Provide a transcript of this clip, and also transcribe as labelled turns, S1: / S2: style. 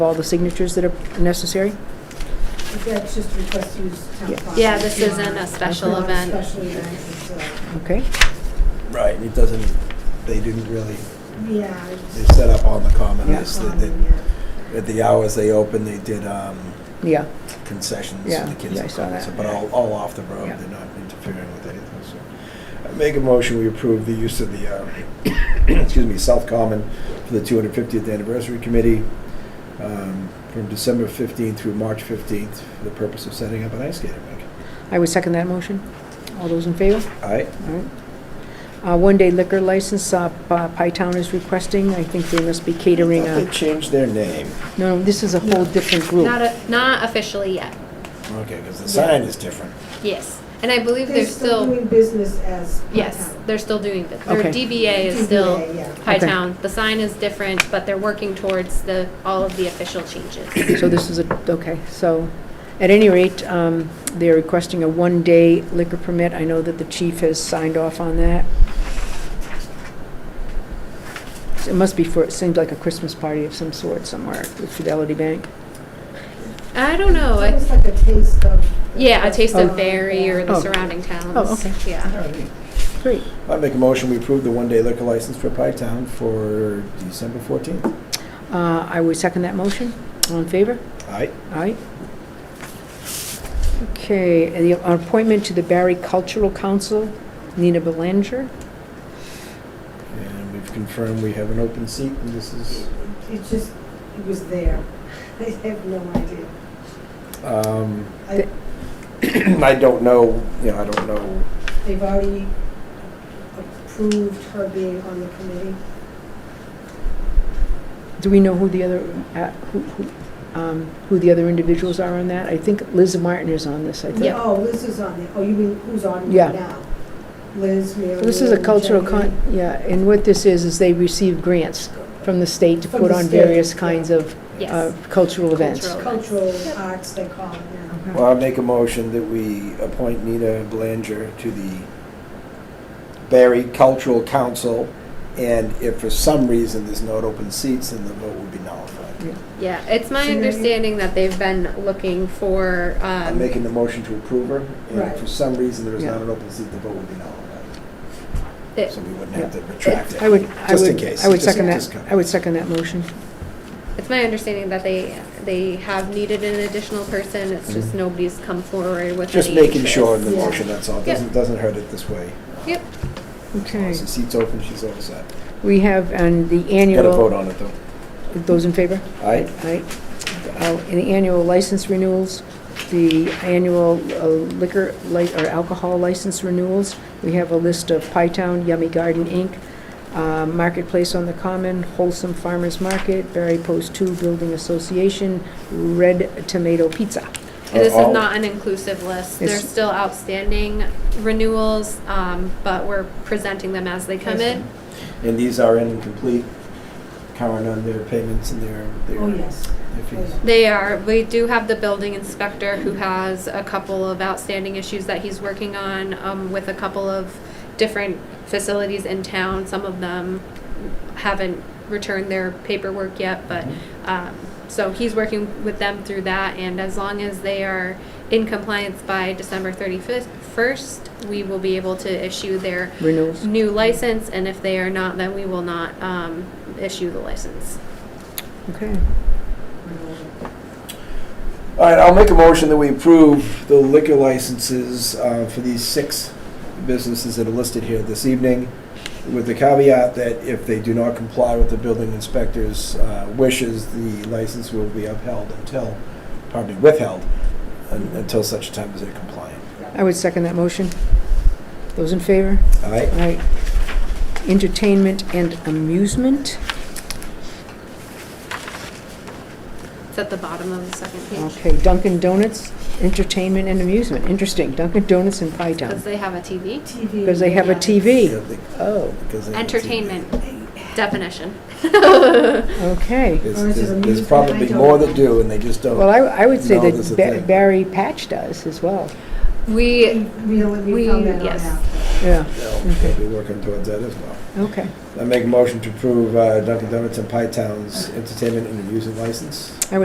S1: all the signatures that are necessary?
S2: That's just request to use town
S1: Yeah.
S2: funds.
S3: Yeah, this
S2: It's
S3: isn't
S2: not-
S3: a special
S2: not a
S3: event.
S2: Special event, it's, uh,
S1: Okay,
S4: Right, it doesn't, they didn't really,
S2: yeah.
S4: they set up on the common,
S2: it's
S4: as they- they-
S2: common, yeah.
S4: at the hours they opened, they did um,
S1: yeah,
S4: concessions
S1: Yeah,
S4: to the kids.
S1: yeah, I
S4: and
S1: saw
S4: stuff,
S1: that.
S4: But all, all off the road,
S1: Yeah.
S4: they're not interfering with anything, so. I Make a motion, we approve the use of the, um, excuse me, South Common for the two hundred fiftieth anniversary committee um, from December fifteenth through March fifteenth for the purpose of setting up an ice skating rink.
S1: I would second that motion. All those in favor?
S4: All right,
S1: All right. Uh, One-day liquor license, uh, Pa- Pi Town is requesting, I think they must be catering,
S4: they
S1: a-
S4: changed their name.
S1: no, no, this is a whole different group.
S3: Not, a- not officially yet,
S4: Okay, because the sign is different.
S3: yes. And I believe they're still,
S2: doing business as.
S3: yes,
S2: part-time.
S3: they're still doing, but their
S1: Okay.
S3: DBA is still
S2: DBA, yeah.
S3: High
S1: Okay.
S3: Town. The sign is different, but they're working towards the, all of the official changes.
S1: So this is a, okay, so, at any rate, um, they're requesting a one-day liquor permit. I know that the chief has signed off on that. So It must be for, it seems like a Christmas party of some sort somewhere at Fidelity Bank.
S3: I don't know, I-
S2: It's almost like a taste of.
S3: yeah, a taste
S1: Oh.
S3: of Berry or the
S1: Oh.
S3: surrounding towns.
S1: Oh, okay.
S3: Yeah.
S1: Great.
S4: I make a motion, we approve the one-day liquor license for Pi Town for December 14th.
S1: Uh, I would second that motion. All in favor?
S4: Aye.
S1: Aye. Okay, and the appointment to the Barry Cultural Council, Nina Belanger.
S4: And we've confirmed we have an open seat, and this is,
S2: It just, it was there. I have no idea.
S4: um,
S2: I-
S4: I don't know, you know, I don't know,
S2: They've already approved her being on the committee.
S1: Do we know who the other, uh, who, who, um, who the other individuals are on that? I think Liz Martin is on this, I think.
S3: Yep.
S2: Oh, Liz is on there. Oh, you mean, who's on it
S1: Yeah.
S2: now? Liz, Mary.
S1: So This is a
S2: Lou,
S1: cultural
S2: Jenny.
S1: con, yeah, and what this is, is they receive grants from the state to
S2: From
S1: put
S2: the
S1: on
S2: state,
S1: various
S2: yeah.
S1: kinds of uh,
S3: Yes.
S1: cultural events.
S3: Cultural.
S2: Cultural arts, they call it now.
S4: well, I make a motion that we appoint Nina Belanger to the Barry Cultural Council, and if for some reason there's no open seats, then the vote would be nullified.
S3: Yeah, it's my
S2: Scenery.
S3: understanding that they've been looking for,
S4: I'm
S3: um,
S4: making the motion to approve her, and if
S2: Right.
S4: for some reason there is
S1: Yeah.
S4: not an open seat, the vote would be nullified.
S3: it-
S4: So we wouldn't have to retract it.
S1: I would, I
S4: Just in
S1: would,
S4: case.
S1: I would
S4: Just-
S1: second
S4: just
S1: that,
S4: cover.
S1: I would second that motion.
S3: It's my understanding that they, they have needed an additional person, it's just
S4: Mhm.
S3: nobody's come forward with
S4: Just
S3: any
S4: making sure in
S3: interest.
S4: the
S2: Yeah.
S4: motion, that's all.
S3: Yep.
S4: Doesn't, doesn't hurt it this way.
S3: Yep,
S4: As long
S1: Okay,
S4: as the seat's open, she's all set.
S1: we have, and the
S4: Got to vote
S1: annual,
S4: on it, though.
S1: those in favor?
S4: Aye?
S1: Right. Uh, in The annual license renewals, the annual uh, liquor, li- or alcohol license renewals. We have a list of Pie Town, Yummy Garden Inc., uh, Marketplace on the Common, Wholesome Farmers Market, Barry Post Two Building Association, Red Tomato Pizza.
S3: and this is
S4: all-
S3: not an inclusive list, there's
S1: It's-
S3: still outstanding renewals, um, but we're presenting them as they come in.
S4: And these are incomplete, current on their payments and their,
S2: Oh,
S4: their
S2: yes.
S4: their fees.
S3: They are, we do have the building inspector who has a couple of outstanding issues that he's working on, um, with a couple of different facilities in town, some of them haven't returned their paperwork yet, but, um, so he's working with them through that, and as long as they are in compliance by December thirty-fifth, first, we will be able to issue their
S1: Renewals.
S3: new license, and if they are not, then we will not, um, issue the license.
S1: Okay.
S4: All right, I'll make a motion that we approve the liquor licenses uh, for these six businesses that are listed here this evening, with the caveat that if they do not comply with the building inspector's uh, wishes, the license will be upheld until, pardon me, withheld un- until such time as they're compliant.
S1: I would second that motion. Those in favor?
S4: All right?
S1: All right. Entertainment and amusement.
S3: It's at the bottom of the second page.
S1: Okay, Dunkin' Donuts, entertainment and amusement. Interesting, Dunkin' Donuts in Pi Town.
S3: Because they have a TV.
S2: TV.
S1: Because they have a
S2: yeah.
S4: Yeah,
S1: TV.
S4: they-
S1: Oh,
S4: because they-
S3: Entertainment definition.
S1: okay.
S4: There's-
S2: Or is it
S4: There's there's
S2: amusement?
S4: probably
S2: I don't
S4: more that
S2: know.
S4: do, and they just don't.
S1: Well, I, I would say
S4: No, there's a
S1: that Ba-
S4: thing.
S1: Barry Patch does as well.
S3: We,
S2: We, we
S3: We-
S2: found that out
S3: yes.
S2: after.
S1: Yeah,
S4: So We'll be working towards that as well.
S1: okay.
S4: I make a motion to approve uh, Dunkin' Donuts and Pie Town's entertainment and amusement license.